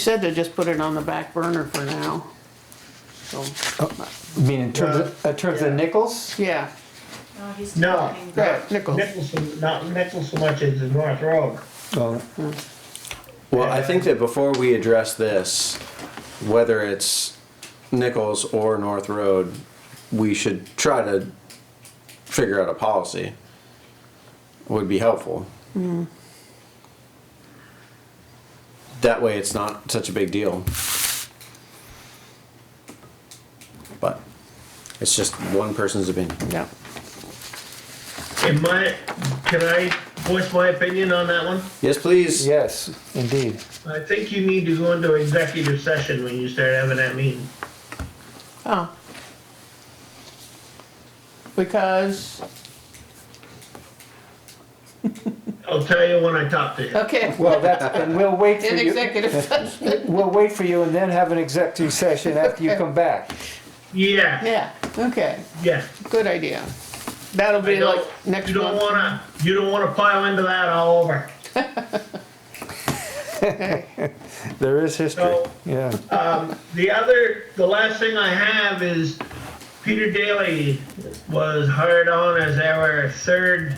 said to just put it on the back burner for now. So, I mean, in terms of, in terms of nickels? yeah, No, Oh, he's No. talking. yeah, Nichols. Nicholson, not Nicholson so much as the North Road. Well, Well, I think that before we address this, whether it's Nichols or North Road, we should try to figure out a policy. Would be helpful. That way it's not such a big deal. But it's just one person's opinion. yeah. In my, can I voice my opinion on that one? Yes, please. yes, indeed. I think you need to go into executive session when you start having that meeting. Oh. Because, I'll tell you when I talk to you. okay, Well, that's, and we'll wait for in you. executive session, We'll wait for you and then have an executive session after you come back. Yeah, yeah, okay, yeah. good idea. That'll I be like don't- next You don't month. wanna, you don't wanna pile into that all over. There is history, So- yeah. The other, the last thing I have is Peter Daly was hired on as our third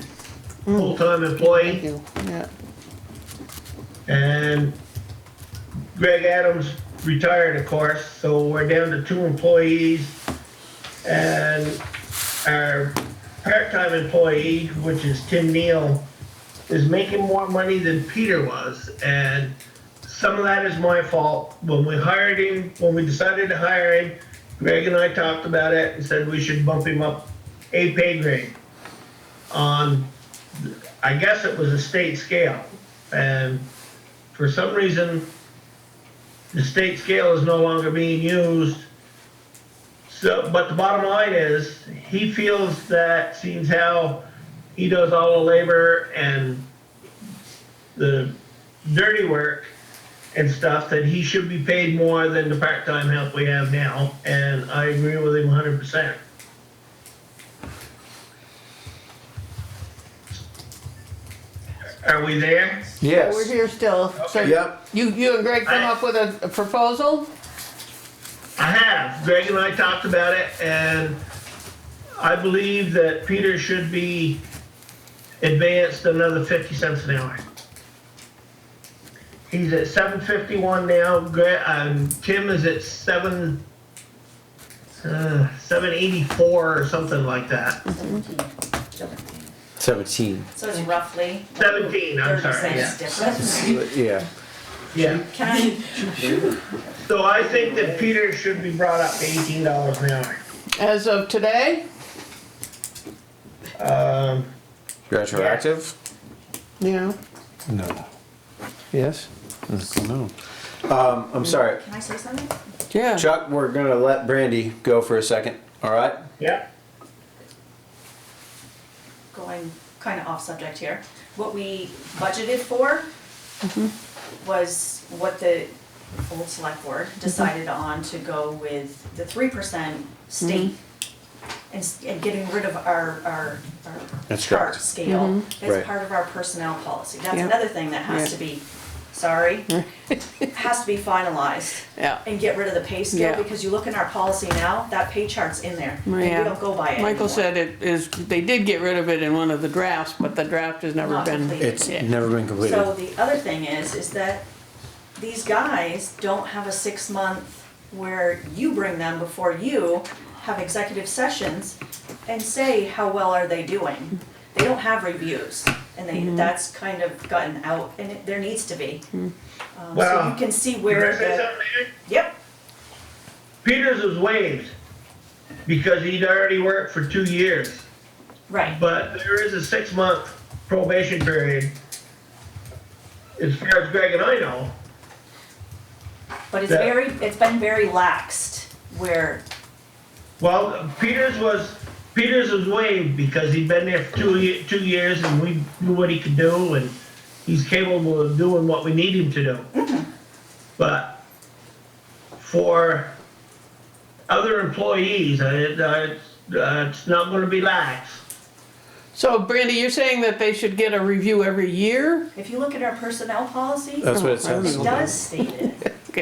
Mm. full-time employee. Thank you, yeah, And Greg Adams retired, of course, so we're down to two employees. And our part-time employee, which is Tim Neal, is making more money than Peter was. And some of that is my fault. When we hired him, when we decided to hire him, Greg and I talked about it and said we should bump him up a pay grade on, I guess it was a state scale. And for some reason, the state scale is no longer being used. So, but the bottom line is, he feels that seems how he does all the labor and the dirty work and stuff, that he should be paid more than the part-time help we have now, and I agree with him hundred percent. Are we there? we're Yes, here still, so Yep. you, you and Greg come up with a a proposal? I have. Greg and I talked about it, and I believe that Peter should be advanced another fifty cents an hour. He's at seven fifty-one now. Greg, um, Tim is at seven, uh, seven eighty-four or something like that. Seventeen. So it's roughly. Seventeen. I'm Thirty sorry. cents difference. Yeah. Yeah. Can I, So I think that Peter should be brought up to eighteen dollars an hour. As of today? Um, Retroactive? Yeah, no. Yes, No. Um, I'm sorry. can I say something? yeah. Chuck, we're gonna let Brandy go for a second, all right? yeah. Going kind of off subject here. What we budgeted for Mm-hmm. was what the old select board decided on to go with the three percent state Mm-hmm. and, s- and getting rid of our, our, our That's chart correct. scale. Right. That's part of our personnel policy. That's Mm-hmm. Yeah. another thing that has Yeah. to be, sorry, has to be finalized. Yeah. and get rid of the pay Yeah. scale, because you look in our policy now, that pay chart's in there, and we Yeah. don't go by it Michael anymore. said it is, they did get rid of it in one of the drafts, but the draft has never Not been, complete. It's Yeah. never been completed. So the other thing is, is that these guys don't have a six-month where you bring them before you have executive sessions and say, how well are they doing? They don't have reviews, and they, that's kind of gotten out, and it, there needs to be. Um, So Well, you can see Can I where say the, something, Mary? yep, Peters was waived because he'd already worked for two years, right, but there is a six-month probation period. As far as Greg and I know, but it's Yeah. very, it's been very laxed, where well, Peters was, Peters was waived because he'd been there for two, ye- two years and we knew what he could do and he's capable of doing what we need him to do. But for other employees, I, I, it's not gonna be lax. So Brandy, you're saying that they should get a review every year? If you look at our personnel policy, That's what it Oh, uh, I don't says. know. it does state it.